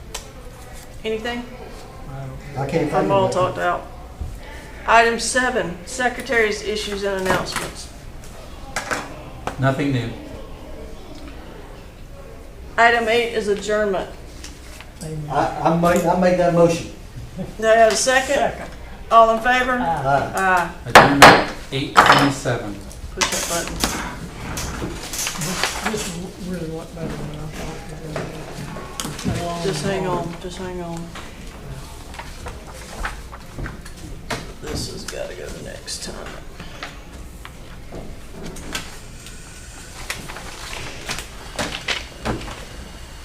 Anything? I can't find I'm all it. talked out. Item seven, secretary's issues and announcements. Nothing new. Item eight is adjournment. I, I make, I make that motion. Do I have a second? All in favor? Aye. Aye. Adjournment eight twenty-seven. Push that button. This really went better than I thought. it would. Long Just hang haul. on, just hang on. This has gotta go the next time.